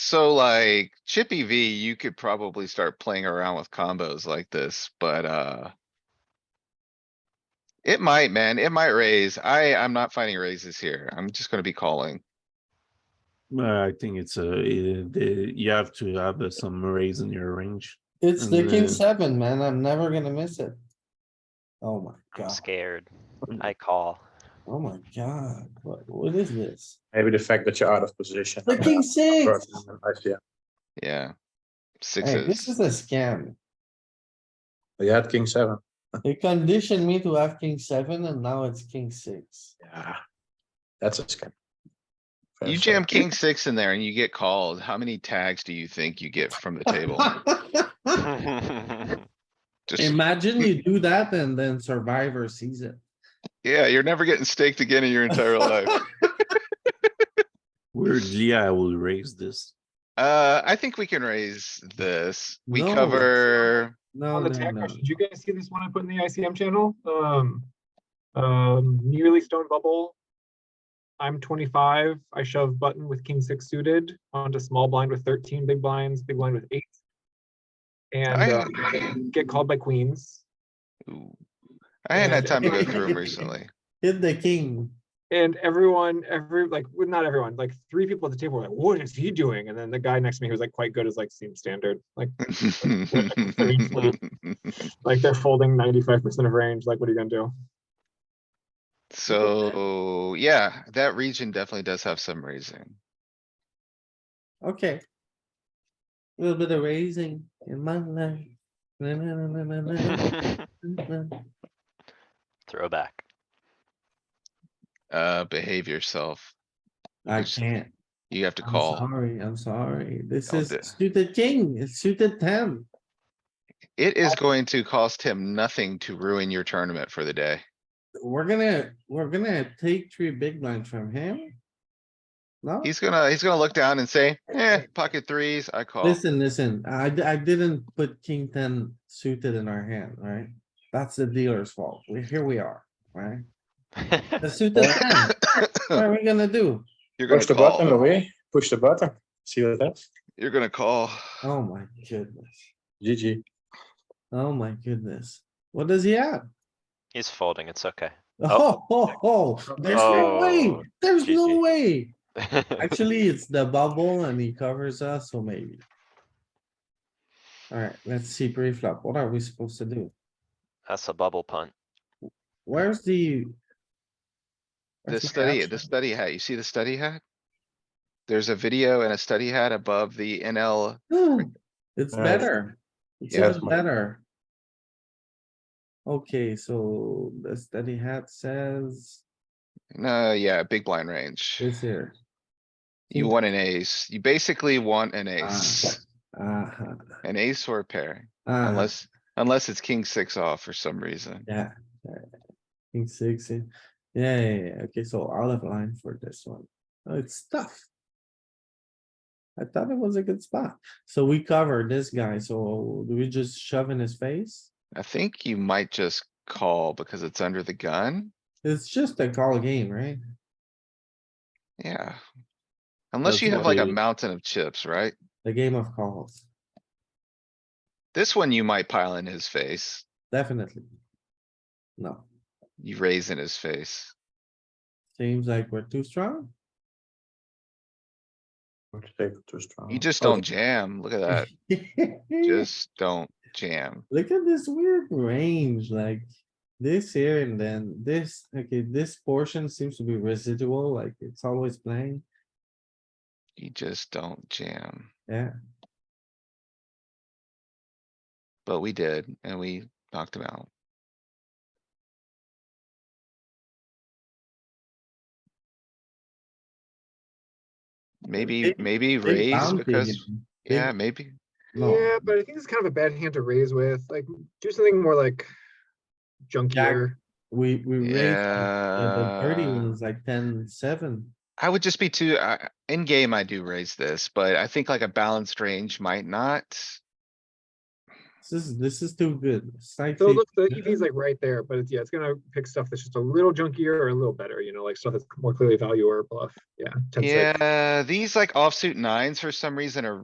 So like Chippy V, you could probably start playing around with combos like this, but, uh. It might, man. It might raise. I, I'm not finding raises here. I'm just gonna be calling. Uh, I think it's a, it- the- you have to have uh, some raise in your range. It's the king Mm. seven, man. I'm never gonna miss it. Oh my I'm god, scared. I call. oh my god, what, what is this? Maybe the fact that you're out of position. The king six. Yeah, Yeah. Hey, this Sixes. is a scam. you had king seven. They conditioned me to have king seven and now it's king six. Yeah. That's a scam. Fair You side. jam king six in there and you get called. How many tags do you think you get from the table? Just, Imagine you do that and then survivor sees it. yeah, you're never getting staked again in your entire life. Weirdly, I will raise this. Uh, I think we can raise this. We No. cover, No, On the no, tag Oh, no. question, did you guys see this one I put in the ICM channel? Um, um, nearly stone bubble. I'm twenty-five, I shove button with king six suited onto small blind with thirteen, big blinds, big blind with eight. And I- uh, get called by queens. Ooh. I hadn't had And- time to go through them recently. Hit the king. And everyone, every, like, well, not everyone, like, three people at the table were like, what is he doing? And then the guy next to me who was like quite good is like, seems standard, like, like they're folding ninety-five percent of range, like, what are you gonna do? So, yeah, that region definitely does have some raising. Okay. A Little bit of raising in my life. Na, na, na, na, na, na, na, na. Throwback. Uh, behave yourself. I Just can't. You have to I'm call. Sorry, I'm sorry. This Don't is do it. suited king, it's suited ten. It is going to cost him nothing to ruin your tournament for the day. We're gonna, we're gonna take three big blinds from him. No, He's gonna, he's gonna look down and say, eh, pocket threes, I call. listen, listen, I, d- I didn't put king ten suited in our hand, right? That's the dealer's fault. We, here we are, right? The suited ten, what are we gonna do? You're gonna Push the button, call. Louis. Push the button. See what happens. You're gonna call. Oh my goodness, GG. oh my goodness. What does he have? He's folding, it's okay. Oh, Oh. oh, oh, there's no way, Oh, there's no GG. way. Actually, it's the bubble and he covers us, so maybe. Alright, let's see pre-flop. What are we supposed to do? That's a bubble punt. Where's the? The Where's my study, action? the study hat, you see the study hat? There's a video and a study hat above the NL. Ooh, It's Uh, better. It's yeah, it's even my- better. Okay, so the study hat says No, uh, yeah, big blind range. it's here. Hmm. You think- want an ace. You basically want an Ah. ace, Uh-huh, an ace or a pair, uh-huh, unless, unless it's king six off for some reason. yeah. yeah. King six, yeah, yeah, yeah, yeah. okay, so out of line for this one. Oh, It's tough. I thought it was a good spot. So we covered this guy, so do we just shove in his face? I think you might just call because it's under the gun. It's just a call game, right? Yeah. Unless That's you have what like a the- mountain of chips, right? The game of calls, This one you might pile in his face. definitely. No, You raise in his face. seems like we're too strong. Take it too strong. Oh, You just don't jam. Look at that. Look Just don't jam. at this weird range, like this here and then this, okay, this portion seems to be residual, like it's always playing, You just don't jam. yeah. But we did, and we knocked him out. Maybe, big- maybe Big raise bounty because, again. Big- yeah, maybe. No. Yeah, but I think it's kind of a bad hand to raise with, like, do something more like junkier. We, we raised the the dirty Yeah. ones like ten, seven. I would just be too, I in game I do raise this, but I think like a balanced range might not. This is, this is too good. Side So fade. look, the EV is like right there, but it's, yeah, it's gonna pick stuff that's just a little junkier or a little better, you know, like stuff that's more clearly value or bluff. Yeah. 10-6. Yeah, these like offsuit nines for some reason are